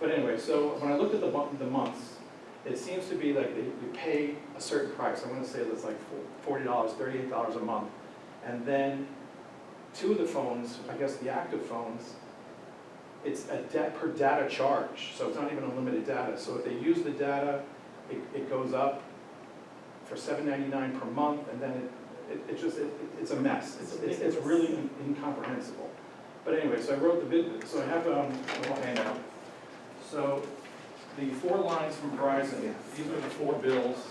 But anyway, so when I looked at the mon- the months, it seems to be like they- you pay a certain price, I'm gonna say that's like fo- forty dollars, thirty-eight dollars a month. And then two of the phones, I guess the active phones, it's a debt per data charge, so it's not even unlimited data. So if they use the data, it, it goes up for seven ninety-nine per month, and then it, it, it just, it, it's a mess. It's, it's, it's really in- incomprehensible. But anyway, so I wrote the bid, so I have, um, a little handout. So the four lines from Verizon, these are the four bills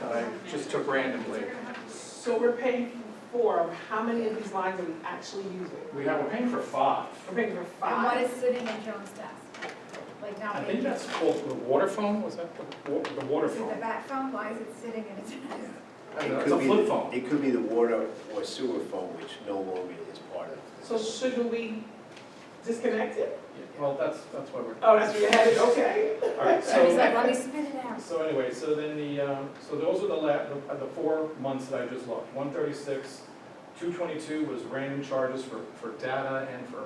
that I just took randomly. So we're paying for, how many of these lines are we actually using? We have, we're paying for five. We're paying for And what five? is sitting in Joan's desk? Like now, I think maybe, is that's called the water phone, was that the, wa- the water it the phone? bat phone, why is it sitting in its desk? I It don't know, could It's a be flip the- phone. It could be the water or sewer phone, which no longer is part of. So shouldn't we disconnect it? Well, that's, that's why we're. Oh, that's where you're headed, okay. All right, She's like, so, let me spit it out. so anyway, so then the, um, so those are the la, the- uh, the four months that I just looked. One thirty-six, two twenty-two was random charges for, for data and for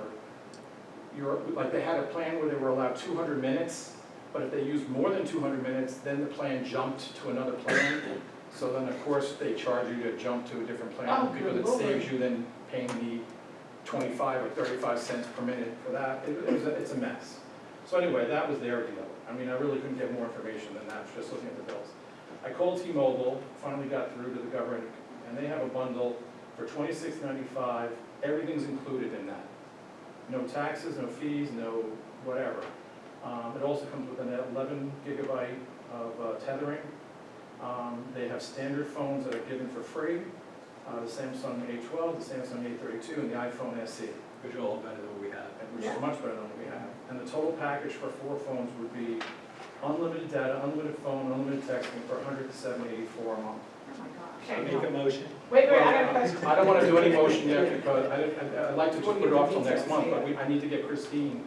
your, like, they had a plan where they were allowed two hundred minutes, but if they used more than two hundred minutes, then the plan jumped to another plan. So then, of course, they charge you to jump to a different Oh, plan, good because it lord. saves you then paying the twenty-five or thirty-five cents per minute for that. It it was, a- it's a mess. So anyway, that was their deal. I mean, I really couldn't get more information than that, just looking at the bills. I called T-Mobile, finally got through to the government, and they have a bundle for twenty-six ninety-five, everything's included in that. No taxes, no fees, no whatever. Um, it also comes with an eleven gigabyte of uh, tethering. Um, they have standard phones that are given for free, uh, the Samsung A twelve, the Samsung A thirty-two, and the iPhone SE, Which are all better than what we have. and which is much better than what we have. And the total package for four phones would be unlimited data, unlimited phone, unlimited texting for 107.84 a month. Oh my gosh. I make a motion. Wait, wait, I got a question. I don't wanna do any motion yet, because I, I- I'd like to just put it off till next month, but we, I need to get Christine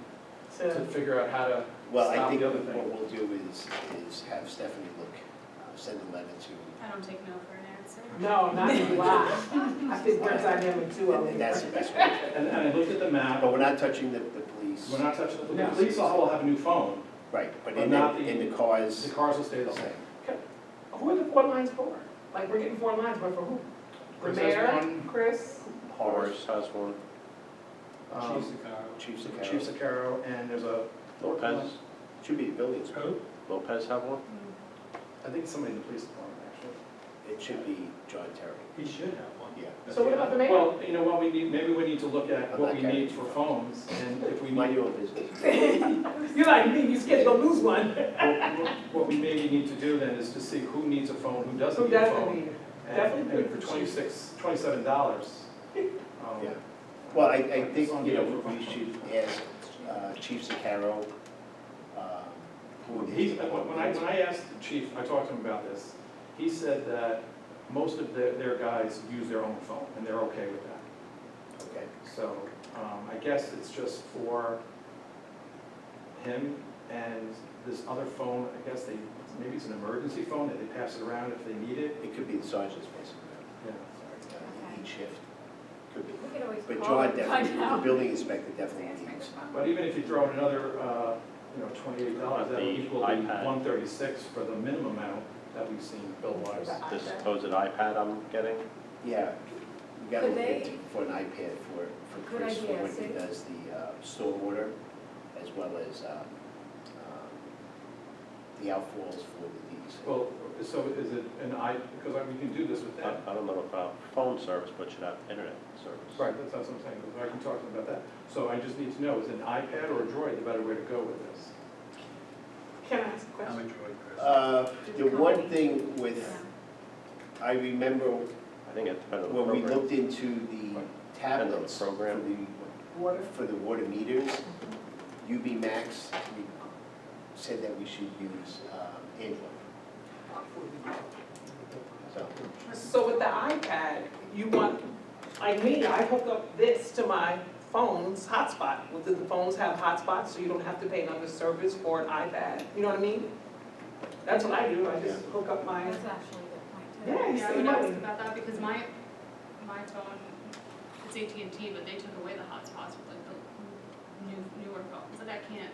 to So, figure out how to Well, I stop think the other what thing. we'll do is, is have Stephanie look, uh, send a letter to, I don't take no for an answer. no, not in July. I think we're dynamic too, and- over and here. that's the best way. And, and I looked at the map, But we're not touching the, the police. we're not touching, the No. police will have a new phone, Right, but but in not the, the- in the the cars, cars will stay the the same. same. Who are the four lines for? Like, we're getting four lines, but for who? The Chris has mayor, one, Chris? Horace, has one. um, Chief Sakara. Chief Chief Sakara, Sacaro, and there's a, Lopez, should be the buildings, Who? Lopez have one? I think somebody in the police department, actually. it should be John Terry, He should have one. yeah. That's So what about the mayor? Well, you know what, we need, maybe we need to look at what we need for phones, and if we Mind need, your own business. You're like me, you scared to go lose one. what- what we maybe need to do then is to see who needs a phone, who doesn't Who need a phone. doesn't need it? And- Definitely And good for for twenty-six, twenty-seven dollars. Um, Yeah. Well, I, I think, you know, we should ask uh, Chief Sicaro, um, who. He's, uh, when I, when I asked the chief, I talked to him about this, he said that most of their, their guys use their own phone, and they're okay with that. Okay, So, um, I guess it's just for him and this other phone, I guess they, maybe it's an emergency phone that they pass it around if they need it, it could be the sergeant's basically, yeah. uh, each shift, could be. We could always But call John and find definitely, the out. building inspector Say it's definitely my needs. But even if you throw in another, uh, you know, twenty-eight dollars, that'll The equal iPad. one thirty-six for the minimum amount that we've seen bill-wise. This supposed iPad I'm getting? Yeah, we gotta Could look they- into- for an iPad for, for Good Chris, for idea, when he see? does the uh, stormwater, as well as um, um, the outfalls for the Well, so is it an i, because I- we can do this with I that. I don't know about phone service, but should have internet service. Right, that's that's what I'm saying, but I can talk to them about that. So I just need to know, is an iPad or a Droid the better way to go with this? Can I ask a I'm question? enjoying these. Chris. Uh, The one thing Yeah. with, I remember I think it depends on the When we program. looked into the tablets for program. the water, for the water meters, UB Max we said that we should use um, Android. So, So with the iPad, you want, like me, I hook up this to my phone's hotspot. Well, do the phones have hotspots, so you don't have to pay another service for an iPad? You know what I mean? That's what I do, I just hook up my, That's actually a good point too. yeah, you Yeah, I save would ask money. about that because my, my phone, it's AT&T, but they took away the hotspots with like the new, newer phones, like I can't